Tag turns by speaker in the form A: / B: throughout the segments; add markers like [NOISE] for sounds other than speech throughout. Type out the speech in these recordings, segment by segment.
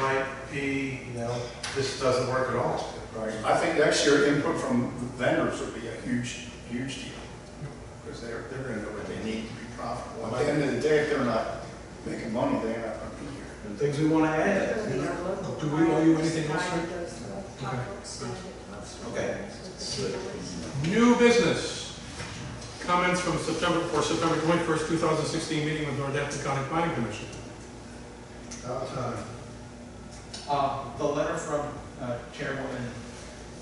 A: might be, you know, this doesn't work at all.
B: Right, I think next year input from the vendors would be a huge, huge deal. Because they're, they're gonna know what they need to be profitable. At the end of the day, if they're not making money, they're not gonna be here.
C: and things we want to add.
D: Those are our local
C: Do we owe you
D: clients,
C: anything else,
D: buying
C: Rick?
D: those local products, and it's
C: Okay.
E: New business, comments from September, for September twenty-first, two thousand sixteen meeting with Northampton County Planning Commission.
F: Uh, The letter from uh, Chairwoman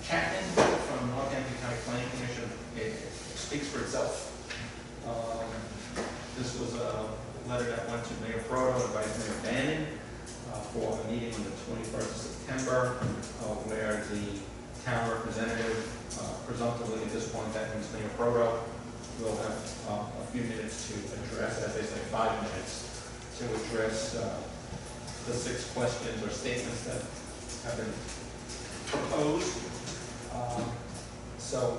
F: Chapman from Northampton County Planning Commission it speaks for itself. Um, This was a letter that went to Mayor Proto and Vice Mayor Bannon uh, for a meeting on the 21st of September uh, where the town representative, uh, presumptively at this point, that means Mayor Proto, will have uh, a few minutes to address, as they say, five minutes, to address uh, the six questions or statements that have been proposed. Um, So,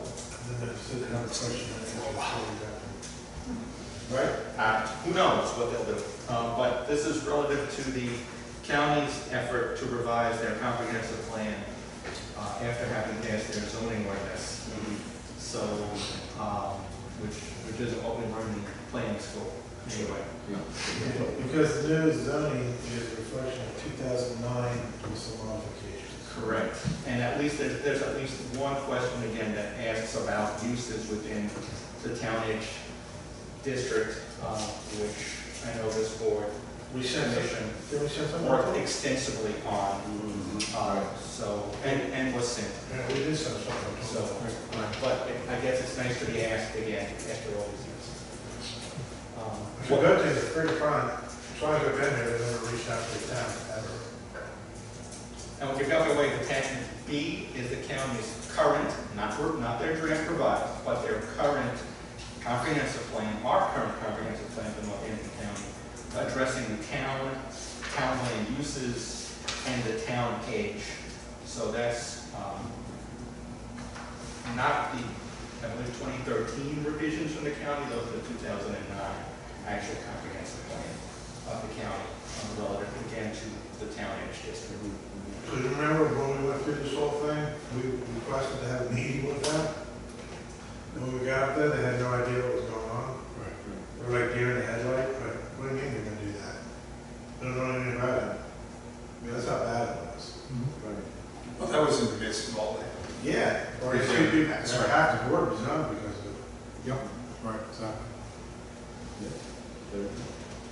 F: right, uh, who knows what they'll do. Uh, But this is relative to the county's effort to revise their comprehensive plan uh, after having passed their zoning ordinance. So, um, which, which is an open learning plan school, anyway.
A: Because new zoning is a reflection of two thousand nine with some modifications.
F: Correct. And at least, there's, there's at least one question again that asks about uses within the townage district, uh, which I know this board,
A: We sent it,
F: commission,
A: did we send something?
F: worked extensively on.
A: Mm-hmm.
F: Uh, So, and, and was sent,
A: Yeah, we did send something.
F: so, but it- I guess it's nice to be asked again after all these years. Um,
A: The good thing is, pretty fine, as long as I've been here, they never reached out to the town, ever.
F: And we've got the way attachment B is the county's current, not, not their draft provided, but their current comprehensive plan, our current comprehensive plan for Northampton County, addressing the town, town land uses, and the town age. So that's, um, not the, I believe, twenty thirteen revisions from the county, those are the two thousand and nine actual comprehensive plan of the county, um, relative again to the town age district.
A: So you remember when we went through this whole thing, we requested to have a meeting with them? And when we got up there, they had no idea what was going on. They were like deer in the headlight, but what do you mean you're gonna do that? They don't know anything about it. I mean, that's how bad it was.
B: Mm-hmm. Well, that was in the midst of all that.
A: Yeah. Or
B: Yeah.
A: it's two people,
B: That's
A: or
B: right.
A: half the board resigned because of it.
B: Yep, right, exactly.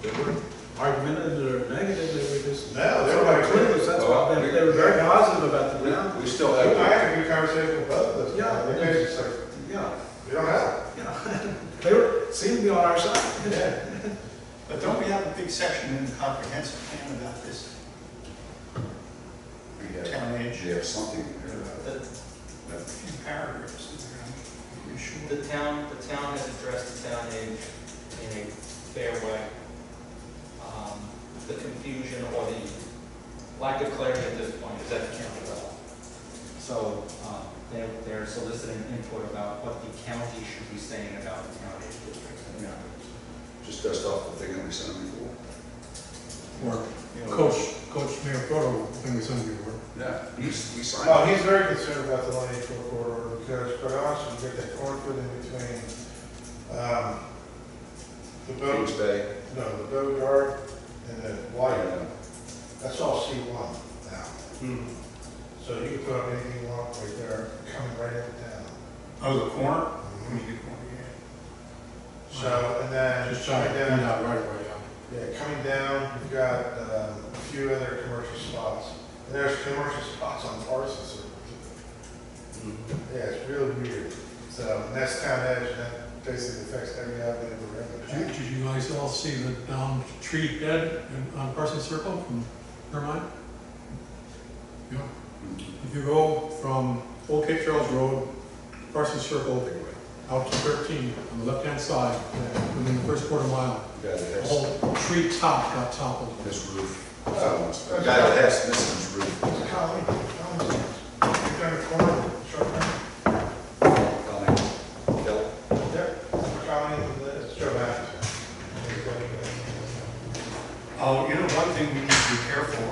C: They were argumentative or negative, they were just.
A: No, they were like-
C: clueless, that's why, they they were very positive about the ground.
G: We still
A: I
B: uh,
G: have,
A: had a good conversation with both of them.
C: Yeah.
A: They basically said,
C: Yeah,
A: we don't have
C: yeah. [LAUGHS] They were, seemed to be on our
A: it.
C: side.
A: Yeah.
B: But don't we have a big section in the comprehensive plan about this
G: we have,
B: town
G: we
B: age?
G: have something there.
F: The,
B: A few paragraphs in there, I'm pretty sure.
F: the town, the town has addressed the town age in a fair way. Um, The confusion or the lack of clarity at this point is at the county level. So, um, they're, they're soliciting input about what the county should be saying about the town age districts and the others.
G: Just dust off the thing that we sent them before.
E: Or Coach, Coach Mayor Proto, thing we sent you, or?
G: Yeah, we, we signed.
A: Well, Oh, he's very concerned about the line eight four corridor because quite honestly, you get that cornfield in between, um, the boat,
G: Kings Bay.
A: no, the boat yard and the wire. That's all C one now.
B: Hmm.
A: So you can put up anything you want right there, coming right into town.
B: Oh, the corner? I
A: Mhm.
B: mean, the corner, yeah.
A: So, and then.
B: Just trying to
A: coming
B: clean
A: down-
B: out right away, yeah.
A: Yeah, coming down, you've got, uh, a few other commercial spots. And there's commercial spots on Parsons Circle. Yeah, it's real weird. So and that's town edge, and that basically affects every avenue of the
E: Did
A: river.
E: you- did you guys all see the downed tree dead in- on Parsons Circle from Vermont? Yeah. If you go from Old Cape Charles Road, Parsons Circle, out to 13 on the left-hand side, within the first quarter mile,
G: The guy that
E: the
G: has
E: whole tree top got toppled.
G: this roof.
A: Oh.
G: The guy that has this
B: Oh,